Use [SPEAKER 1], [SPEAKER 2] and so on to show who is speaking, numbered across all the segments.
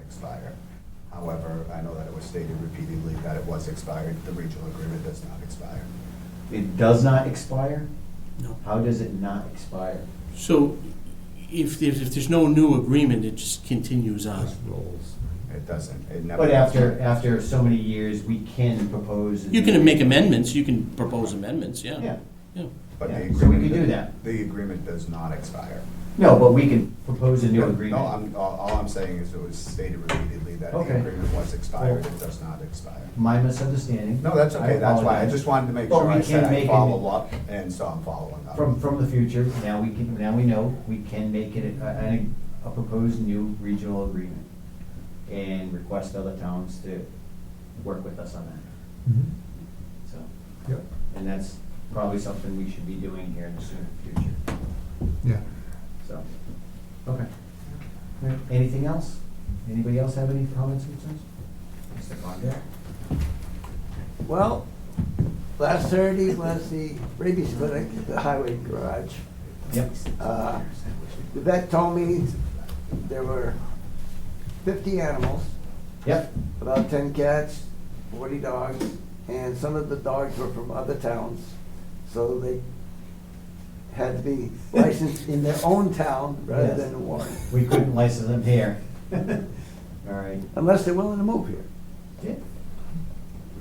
[SPEAKER 1] expire. However, I know that it was stated repeatedly that it was expired. The regional agreement does not expire.
[SPEAKER 2] It does not expire?
[SPEAKER 3] No.
[SPEAKER 2] How does it not expire?
[SPEAKER 3] So if there's, if there's no new agreement, it just continues on.
[SPEAKER 1] It doesn't, it never.
[SPEAKER 2] But after, after so many years, we can propose. a
[SPEAKER 3] You can
[SPEAKER 2] new-
[SPEAKER 3] make amendments, you can propose amendments, yeah.
[SPEAKER 2] Yeah,
[SPEAKER 3] Yeah.
[SPEAKER 1] But the
[SPEAKER 2] yeah, so we
[SPEAKER 1] agreement-
[SPEAKER 2] can do that.
[SPEAKER 1] The agreement does not expire.
[SPEAKER 2] no, but we can propose a new agreement.
[SPEAKER 1] No, I'm, all, all I'm saying is it was stated repeatedly that the
[SPEAKER 2] Okay.
[SPEAKER 1] agreement was expired, it does not expire.
[SPEAKER 2] My misunderstanding.
[SPEAKER 1] No, that's
[SPEAKER 2] I
[SPEAKER 1] okay, that's why, I
[SPEAKER 2] apologize.
[SPEAKER 1] just wanted to make
[SPEAKER 2] But
[SPEAKER 1] sure
[SPEAKER 2] we
[SPEAKER 1] I
[SPEAKER 2] can
[SPEAKER 1] said
[SPEAKER 2] make
[SPEAKER 1] I
[SPEAKER 2] an-
[SPEAKER 1] follow up, and so I'm following up.
[SPEAKER 2] From, from the future, now we can, now we know, we can make it a, a- a proposed new regional agreement and request other towns to work with us on that,
[SPEAKER 4] Mm-hmm.
[SPEAKER 2] so.
[SPEAKER 4] Yep,
[SPEAKER 2] And that's probably something we should be doing here in the soon future,
[SPEAKER 4] yeah.
[SPEAKER 2] so, okay. All right, Anything else? Anybody else have any comments, concerns? Mr. Condit?
[SPEAKER 5] Well, last Saturday was the rabies clinic at the highway garage.
[SPEAKER 2] Yep.
[SPEAKER 5] Uh, The vet told me there were fifty animals,
[SPEAKER 2] Yep,
[SPEAKER 5] about ten cats, forty dogs, and some of the dogs were from other towns. So they had to be licensed in their own town rather
[SPEAKER 2] Yes.
[SPEAKER 5] than Warren,
[SPEAKER 2] we couldn't license them here. All right,
[SPEAKER 5] unless they're willing to move here.
[SPEAKER 2] Yeah.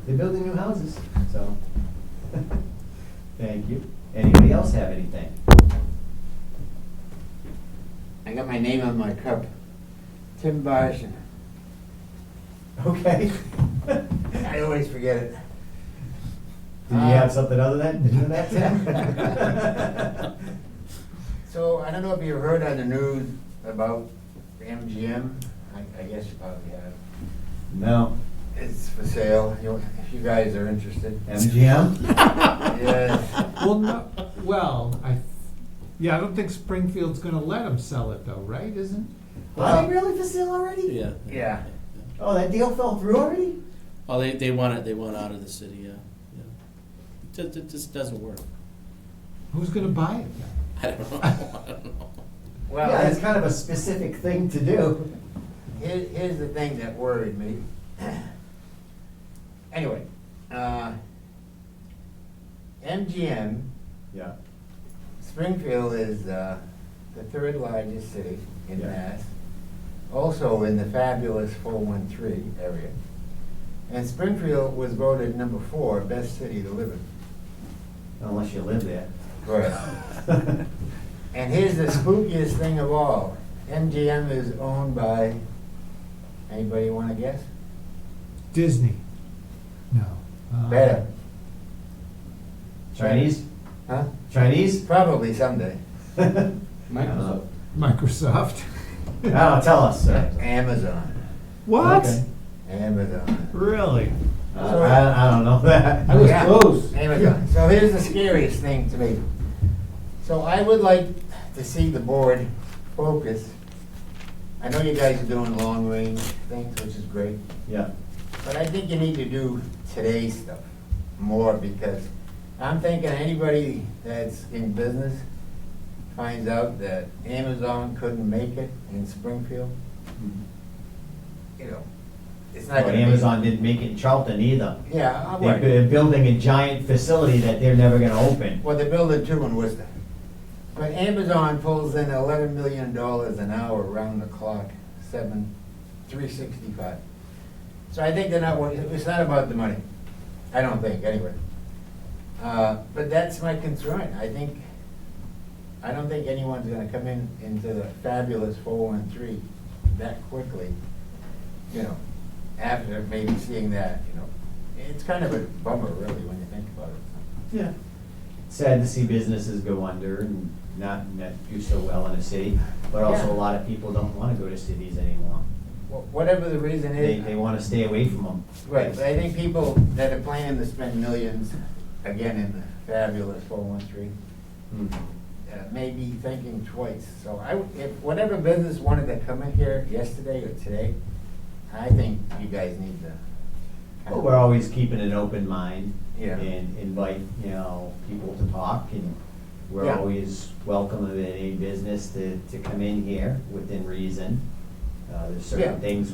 [SPEAKER 2] They're building new houses, so. Thank you. Anybody else have anything?
[SPEAKER 6] I got my name on my cup. Tim Barson.
[SPEAKER 2] Okay.
[SPEAKER 6] I always forget it. Uh,
[SPEAKER 2] Did you have something other than, than that, Tim?
[SPEAKER 6] So I don't know if you heard on the news about MGM. I, I guess you probably have.
[SPEAKER 2] No.
[SPEAKER 6] It's for sale. You, if you guys are interested.
[SPEAKER 2] MGM?
[SPEAKER 6] yes.
[SPEAKER 4] Well, no, well, I, yeah, I don't think Springfield's gonna let them sell it though, right, isn't?
[SPEAKER 2] Are they really for sale already?
[SPEAKER 3] Yeah.
[SPEAKER 6] Yeah.
[SPEAKER 2] Oh, that deal fell through already?
[SPEAKER 3] Oh, they, they want it, they want out of the city, yeah, yeah. It just, it just doesn't work.
[SPEAKER 4] Who's gonna buy it then?
[SPEAKER 3] I don't know, I don't know.
[SPEAKER 6] Well,
[SPEAKER 2] Yeah, that's kind of a specific thing to do.
[SPEAKER 6] Here, here's the thing that worried me. anyway, uh, MGM,
[SPEAKER 2] Yeah.
[SPEAKER 6] Springfield is uh, the third largest city in
[SPEAKER 2] Yeah.
[SPEAKER 6] Mass, also in the fabulous 413 area. And Springfield was voted number four best city to live in.
[SPEAKER 2] Unless you live there.
[SPEAKER 6] And here's the spookiest thing of all MGM is owned by, anybody want to guess?
[SPEAKER 4] Disney? No. Uh,
[SPEAKER 6] Better.
[SPEAKER 2] Chinese?
[SPEAKER 6] Huh?
[SPEAKER 2] Chinese?
[SPEAKER 6] Probably someday.
[SPEAKER 2] Microsoft.
[SPEAKER 4] Microsoft.
[SPEAKER 2] Oh, tell us, sir.
[SPEAKER 6] Amazon.
[SPEAKER 4] What?
[SPEAKER 2] Okay.
[SPEAKER 6] Amazon.
[SPEAKER 4] Really?
[SPEAKER 2] Uh, I, I don't know that.
[SPEAKER 6] I was
[SPEAKER 2] Yeah.
[SPEAKER 6] close. Amazon. So here's the scariest thing to me. So I would like to see the board focus. I know you guys are doing long range things, which is great,
[SPEAKER 2] Yeah,
[SPEAKER 6] but I think you need to do today's stuff more because I'm thinking anybody that's in business finds out that Amazon couldn't make it in Springfield, Mm-hmm. you know, it's not
[SPEAKER 2] but
[SPEAKER 6] gonna be.
[SPEAKER 2] Oh, Amazon didn't make it in Charlton either.
[SPEAKER 6] Yeah,
[SPEAKER 2] They're,
[SPEAKER 6] I worry.
[SPEAKER 2] they're building a giant facility that they're never gonna open.
[SPEAKER 6] Well, they're building two in Worcester. But Amazon pulls in eleven million dollars an hour round the clock, seven, three sixty-five. So I think they're not, wor- it's not about the money, I don't think, anyway. Uh, but that's my concern, I think, I don't think anyone's gonna come in into the fabulous four-one-three that quickly, you know, after maybe seeing that, you know. It's kind of a bummer, really, when you think about it.
[SPEAKER 2] Yeah. Sad to see businesses go under and not, not do so well in a city, but also
[SPEAKER 6] Yeah.
[SPEAKER 2] a lot of people don't wanna go to cities anymore.
[SPEAKER 6] Wh- Whatever the reason
[SPEAKER 2] They,
[SPEAKER 6] is.
[SPEAKER 2] they wanna stay away from them.
[SPEAKER 6] Right, but I think people that are planning to spend millions, again, in the fabulous four one three, Mm-hmm. uh, may be thinking twice. So I, would- if, whatever business wanted to come in here yesterday or today, I think you guys need to.
[SPEAKER 2] But we're always keeping an open mind.
[SPEAKER 6] Yeah.
[SPEAKER 2] And invite, you know, people to talk, and we're
[SPEAKER 6] Yeah.
[SPEAKER 2] always welcome of any business to, to come in here within reason. Uh, there's
[SPEAKER 6] Yeah.
[SPEAKER 2] certain things